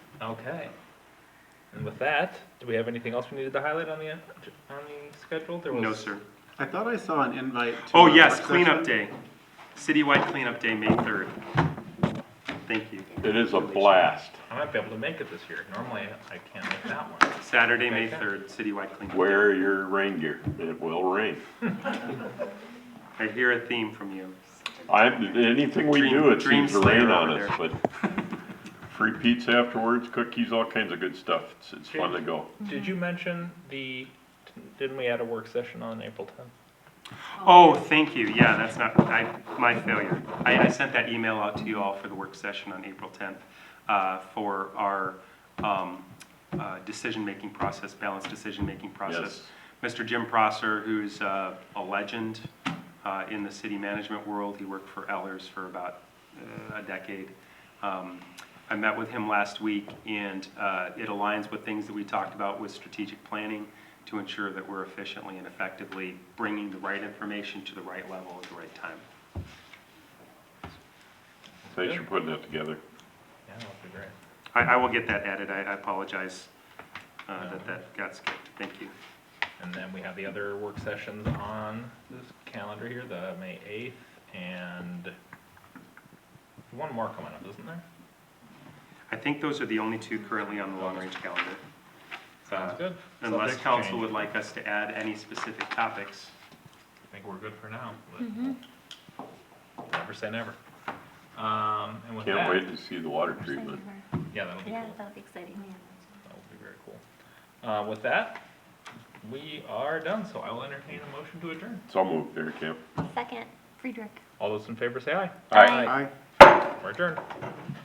Okay. And with that, do we have anything else we needed to highlight on the, on the schedule? There was- No, sir. I thought I saw an invite to. Oh, a yes, work cleanup session. day. Citywide cleanup day, May 3rd. Thank you. It is a blast. I might be able to make it this year. Normally, I can't make that one. Saturday, May 3rd, citywide cleanup. day. Wear your rain gear. It will rain. I hear a theme from you. I, anything we Dream- do, it dream seems to rain slayer on over us, but free pizza afterwards, cookies, all kinds of good stuff. It's, it's fun to go. Did you mention the, didn't we add a work session on April tenth? Oh, thank you. Yeah, that's not, I, my failure. I, I sent that email out to you all for the work session on April 10th uh, for our um, uh, decision-making process, balanced decision-making process. Mr. Jim Prosser, who's uh, a legend uh, in the city management world, he worked for Ellers for about uh, a decade. Um, I met with him last week, and uh, it aligns with things that we talked about with strategic planning to ensure that we're efficiently and effectively bringing the right information to the right level at the right time. Thanks for putting that together. Yeah, that'd be great. I, I will get that added, I I apologize uh, that that got skipped, thank you. And then we have the other work sessions on this calendar here, the May eighth and one more coming up, isn't there? I think those are the only two currently on the long-range calendar. Uh, Sounds good. Unless Subject to council change. would like us to add any specific topics. I think we're good for now, but never say never. Um, and with that. Can't wait to see the water treatment. Yeah, that'll be Yeah, cool. that'll be exciting. That would be very cool. Uh, with that, we are done, so I will entertain a motion to adjourn. It's all moved there, Camp. Second, Friedrich. All those in favor say aye. Aye. Aye. We're adjourned.